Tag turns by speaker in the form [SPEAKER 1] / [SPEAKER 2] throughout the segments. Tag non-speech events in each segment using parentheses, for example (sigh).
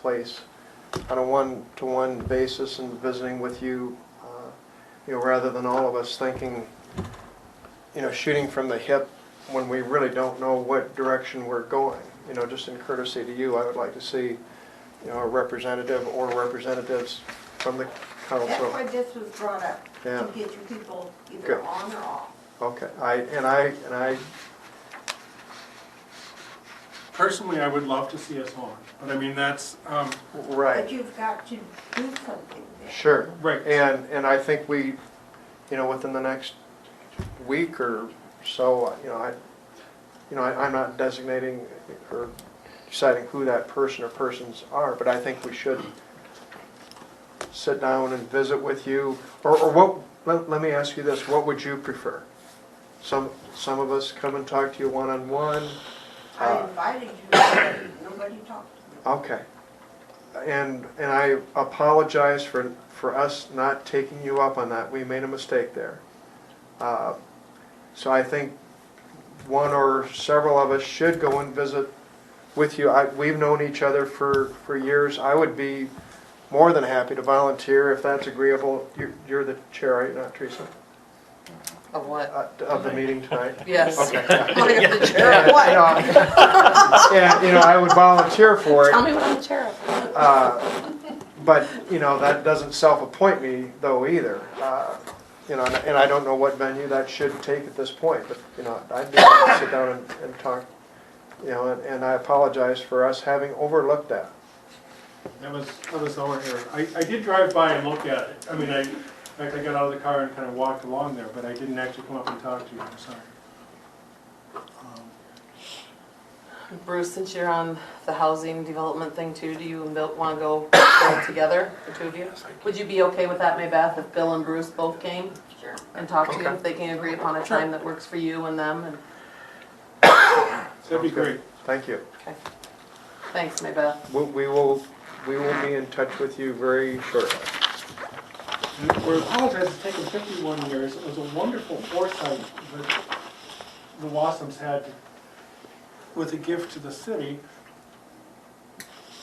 [SPEAKER 1] place on a one-to-one basis and visiting with you, uh, you know, rather than all of us thinking, you know, shooting from the hip when we really don't know what direction we're going. You know, just in courtesy to you, I would like to see, you know, a representative or representatives from the
[SPEAKER 2] That's why
[SPEAKER 1] council.
[SPEAKER 2] this was brought up,
[SPEAKER 1] Yeah.
[SPEAKER 2] to get your people
[SPEAKER 1] Good.
[SPEAKER 2] either on or off.
[SPEAKER 1] Okay, I, and I, and I,
[SPEAKER 3] Personally, I would love to see us on, but I mean, that's, um,
[SPEAKER 2] But
[SPEAKER 1] right,
[SPEAKER 2] you've got to do something there.
[SPEAKER 1] sure.
[SPEAKER 3] right.
[SPEAKER 1] And, and I think we, you know, within the next week or so, you know, I, you know, I- I'm not designating or deciding who that person or persons are, but I think we should sit down and visit with you, or, or what, let, let me ask you this, what would you prefer? Some, some of us come and talk to you one-on-one, Uh,
[SPEAKER 2] I invited you, nobody- nobody talked to me.
[SPEAKER 1] Okay. And, and I apologize for, for us not taking you up on that. We made a mistake there. Uh, So I think one or several of us should go and visit with you. I, we've known each other for, for years. I would be more than happy to volunteer if that's agreeable. You're, you're the chair, right, not Teresa,
[SPEAKER 4] Of what?
[SPEAKER 1] uh, of the meeting tonight?
[SPEAKER 4] Yes. (laughs)
[SPEAKER 1] Okay.
[SPEAKER 4] What if the chair
[SPEAKER 1] And,
[SPEAKER 4] (laughs) of
[SPEAKER 1] you
[SPEAKER 4] what?
[SPEAKER 1] know, And, you know, I would volunteer for it.
[SPEAKER 4] Tell me what I'm the chair of.
[SPEAKER 1] Uh, But, you know, that doesn't self-appoint me though either. Uh, You know, and and I don't know what venue that should take at this point, but, you know, I'd be able to sit down and, and talk, you know, and- and I apologize for us having overlooked that.
[SPEAKER 3] That was, that was our error. I, I did drive by and look at it. I mean, I, in fact, I got out of the car and kind of walked along there, but I didn't actually come up and talk to you, I'm sorry. Um,
[SPEAKER 4] Bruce, since you're on the housing development thing too, do you and Bill want to go (coughs) all together, the two of you? Would you be okay with that, Maybeth, if Bill and Bruce both came
[SPEAKER 2] Sure.
[SPEAKER 4] and talked to you, if they can agree upon a time that works for you and them? And
[SPEAKER 3] so That'd be great.
[SPEAKER 1] Thank you.
[SPEAKER 4] Thanks, Maybeth.
[SPEAKER 1] We- We will, we will be in touch with you very shortly.
[SPEAKER 3] And we apologize, it's taken fifty-one years. It was a wonderful foresight that the Wassums had with a gift to the city.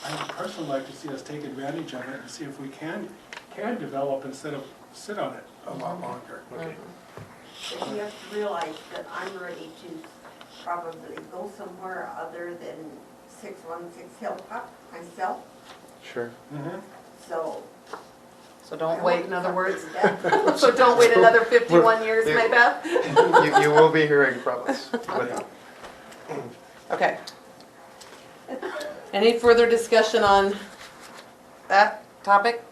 [SPEAKER 3] I would personally like to see us take advantage of it and see if we can, can develop instead of sit on it a lot longer.
[SPEAKER 2] But you have to realize that I'm ready to probably go somewhere other than six one six Hilltop myself,
[SPEAKER 1] Sure.
[SPEAKER 3] Mhm.
[SPEAKER 2] so.
[SPEAKER 4] So
[SPEAKER 2] I
[SPEAKER 4] don't
[SPEAKER 2] want
[SPEAKER 4] wait, in other words.
[SPEAKER 2] something done.
[SPEAKER 4] (laughs) So don't wait another 51 years,
[SPEAKER 1] Yeah.
[SPEAKER 4] Maybeth?
[SPEAKER 1] You, you will be hearing from
[SPEAKER 4] (laughs)
[SPEAKER 1] us. But
[SPEAKER 4] Okay. Any further discussion on that topic?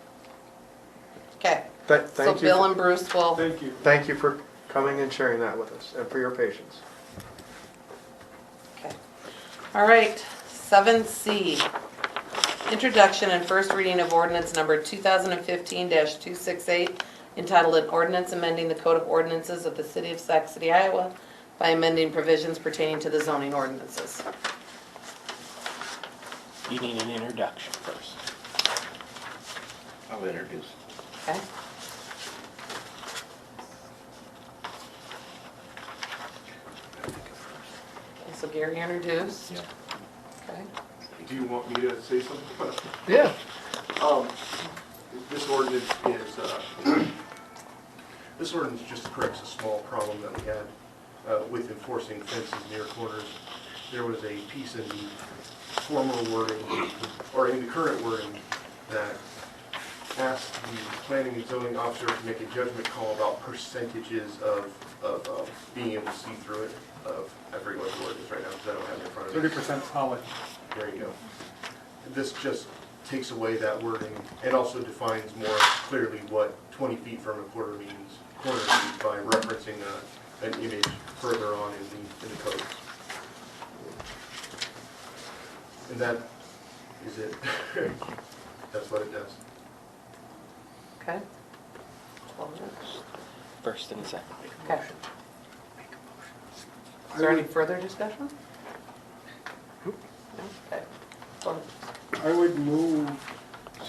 [SPEAKER 4] Okay,
[SPEAKER 1] th-
[SPEAKER 4] so
[SPEAKER 1] Thank
[SPEAKER 4] Bill
[SPEAKER 1] you,
[SPEAKER 4] and Bruce will
[SPEAKER 3] Thank you.
[SPEAKER 1] thank you for coming and sharing that with us and for your patience.
[SPEAKER 4] Okay. All right, seven C. Introduction and first reading of ordinance number two thousand and fifteen two six eight, entitled an ordinance amending the code of ordinances of the city of Sac City, Iowa by amending provisions pertaining to the zoning ordinances.
[SPEAKER 5] You need an introduction first. I'll introduce.
[SPEAKER 4] Okay? Okay, So Gary introduced.
[SPEAKER 5] Yep.
[SPEAKER 4] Okay.
[SPEAKER 6] Do you want me to say something?
[SPEAKER 5] Yeah.
[SPEAKER 6] Um, this ordinance is, uh, this ordinance just corrects a small problem that we had uh, with enforcing fences near corners. There was a piece in the former wording, or in the current wording, that asked the planning and zoning officer to make a judgment call about percentages of, of, of being able to see through it, of, I forget what the word is right now, because I don't have it in front of me.
[SPEAKER 3] Thirty percent solid.
[SPEAKER 6] There you go. This just takes away that wording and also defines more clearly what 20 feet from a quarter means, corner means by referencing a- an image further on in the, in the code. And that is it. (laughs) That's what it does.
[SPEAKER 4] Okay.
[SPEAKER 5] First and second.
[SPEAKER 4] Okay. Is there any further discussion? No? Okay. So,
[SPEAKER 3] I would move.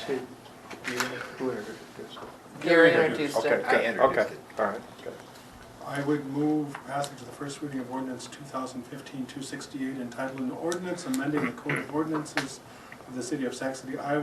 [SPEAKER 1] See, you- who introduced it?
[SPEAKER 4] Gary introduced it.
[SPEAKER 1] Okay, good, okay, all right, good.
[SPEAKER 3] I would move passage of the first reading of ordinance 2015-268 entitled an ordinance amending the code of ordinances of the city of Saxony, Iowa